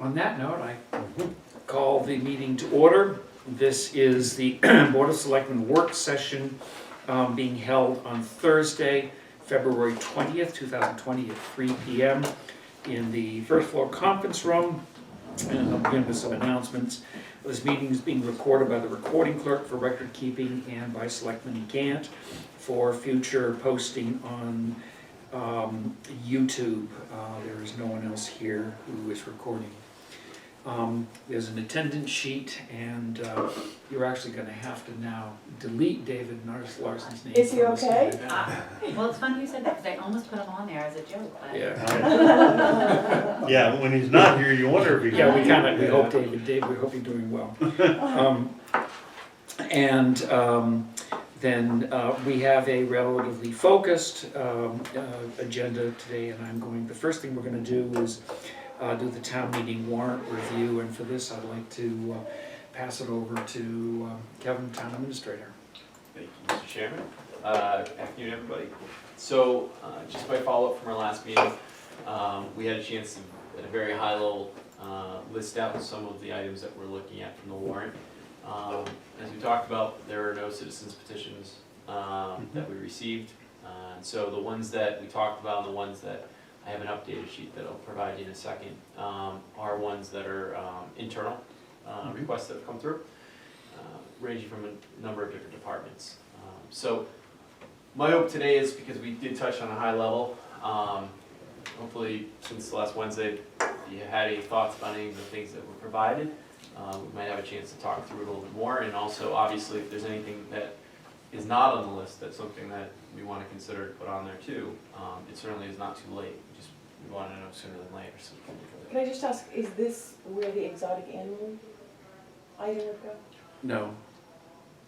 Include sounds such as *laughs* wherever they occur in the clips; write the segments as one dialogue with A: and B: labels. A: On that note, I call the meeting to order. This is the *clears throat* Board of Selectmen work session um, being held on Thursday, February 20th, 2020 at 3 PM in the first floor conference room. And I'll begin with some announcements. This meeting is being recorded by the recording clerk for record keeping and by Selectman Gant for future posting on um, YouTube. Uh, There is no one else here who is recording. Um, There's an attendance sheet, and uh, you're actually going to have to now delete David Nars- Larson's name.
B: Is he
A: from this
B: okay?
A: meeting.
C: Ah, Well, it's funny you said that, because I almost put him on there as a joke, but.
A: Yeah,
D: *laughs* Yeah, when he's not here, you wonder if he.
A: yeah, we kind of, we hope David, Dave, we hope you're doing
B: *laughs*
A: well. Um, And um, then uh, we have a relatively focused um, uh, agenda today, and I'm going, the first thing we're going to do is uh, do the town meeting warrant review, and for this, I'd like to uh, pass it over to uh, Kevin, town administrator.
E: Thank you, Mr. Chairman. Uh, Afternoon, everybody. So, uh, just by follow-up from our last meeting, um, we had a chance to, at a very high level, uh, list out some of the items that we're looking at from the warrant. Um, As we talked about, there are no citizens petitions um, that we received. Uh, and So the ones that we talked about and the ones that I have an updated sheet that I'll provide you in a second um, are ones that are um, internal uh,
A: Mhm.
E: requests that have come through uh, ranging from a number of different departments. Um, So my hope today is because we did touch on a high level, um, hopefully since last Wednesday, if you had any thoughts about any of the things that were provided, uh, we might have a chance to talk through it a little bit more. And also, obviously, if there's anything that is not on the list, that's something that we want to consider to put on there too. Um, It certainly is not too late, just we want to know sooner than later, so. we can look at
B: Can I just ask, is this where the exotic animal item would go?
A: No.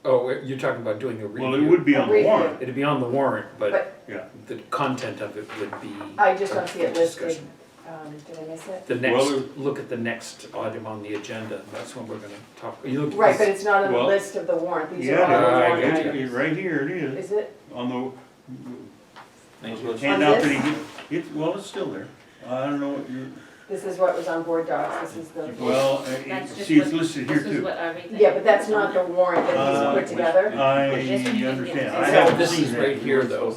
A: Oh, you're talking about doing a review?
D: Well, it would be on the warrant.
A: It'd be on the warrant, but
B: But
A: the content of it would be.
B: I just don't see it listed.
A: Discussion.
B: Um, did I miss it?
A: The next,
D: Well,
A: look at the next item on the agenda, that's when we're gonna talk. Are you looking-
B: Right, but it's not on the
D: Well-
B: list of the warrant. These are
D: Yeah,
B: all the
A: I
B: warrant
A: get
D: It-
A: you.
B: items.
D: it- Right here it is,
B: Is it?
D: on
E: Thank
D: the
E: you.
D: handout that
B: this?
D: he, gi- it's, well, it's still there. I don't know what you're,
B: This is what was on board docs. This is the,
D: well, uh, it-
C: That's just
D: see, it's
C: what-
D: listed here
C: This is
D: too.
C: what everything.
B: yeah, but that's not the warrant that he's
D: Uh,
B: put together.
D: I
C: This one you can get.
D: understand. I
A: So
D: haven't
A: this
D: seen
A: is
D: that.
A: right here, though.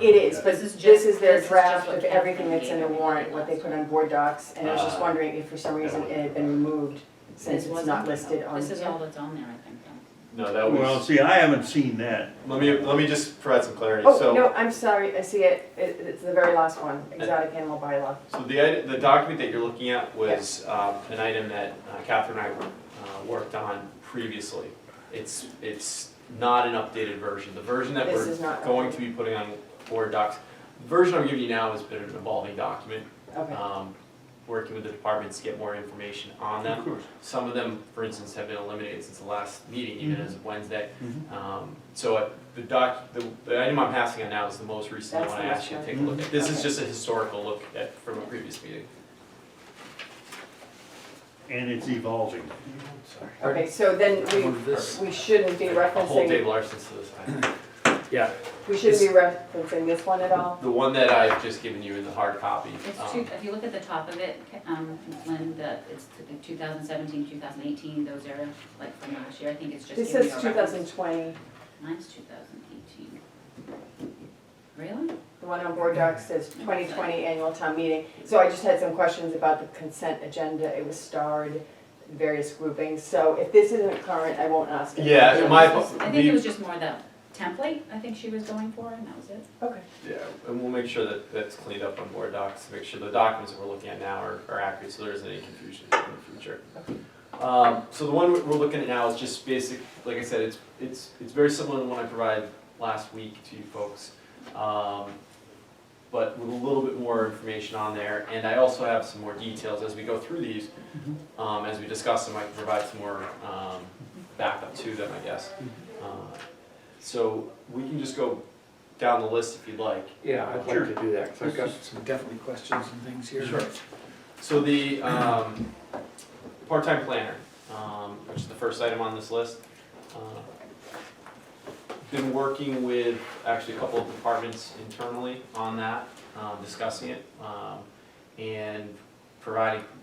B: It is, but
C: This is
B: this
C: just-
B: is their
C: this is
B: draft
C: just what
B: of
C: came
B: everything
C: from
B: that's in the
C: the-
B: warrant, what they put on board docs. And I was just
E: Uh,
B: wondering if for some reason it had been removed since it's not listed on.
C: This is all that's on there, I think, though.
E: No, that
D: Well,
E: was,
D: see, I haven't seen that.
E: let me, let me just provide some clarity.
B: Oh,
E: So-
B: no, I'm sorry. I see it. It- It's the very last one, exotic animal bylaw.
E: So the, id- the document that you're looking at was um, an item that uh, Catherine and I uh, worked on previously. It's, it's not an updated version. The version that
B: This
E: we're
B: is not.
E: going to be putting on board docs, the version I'm giving you now has been an evolving document.
B: Okay.
E: um, Working with the departments to get more information on them.
D: Of course.
E: Some of them, for instance, have been eliminated since the last meeting, even as of Wednesday.
D: Mhm.
E: Um, So uh, the doc, the the item I'm passing on now is the most recent
B: That's
E: one I
B: the
E: asked you to
B: last Mm-hmm.
E: take a
D: one.
E: look at. This is
B: Okay.
E: just a historical look at, from a previous meeting.
D: And it's evolving.
B: Okay, so then
A: I
B: we,
A: wanted this.
B: we shouldn't be
E: The whole Dave
B: referencing,
E: Larson's to the side.
A: Yeah,
B: we shouldn't be referencing this one at all?
E: The one that I've just given you in the hard copy.
C: It's
E: um,
C: two, if you look at the top of it, um, when the, it's the 2017, 2018, those are like from last year, I think it's just.
B: This
C: giving
B: says
C: you a reference.
B: 2020,
C: Mine's 2018. Really?
B: the one on board docs says 2020 annual town meeting. So I just had some questions about the consent agenda, it was starred, various groupings. So if this isn't current, I won't ask it.
E: Yeah, and my,
C: I think it was
E: the-
C: just more the template, I think she was going for, and that was it.
B: Okay,
E: yeah, and we'll make sure that that's cleaned up on board docs, to make sure the documents that we're looking at now are, are accurate, so there isn't any confusion in the future. Um, so the one we're looking at now is just basic, like I said, it's, it's, it's very similar to the one I provided last week to you folks. Um, but with a little bit more information on there, and I also have some more details as we go through these. Um, as we discuss them, I can provide some more, um, backup to them, I guess. Uh, So we can just go down the list if you'd like.
A: yeah, I'd
D: Sure.
A: like to do that, 'cause I've got some definitely questions and things here.
E: Sure. So the um, part-time planner, um, which is the first item on this list. uh, Been working with actually a couple of departments internally on that, um, discussing it. um, And providing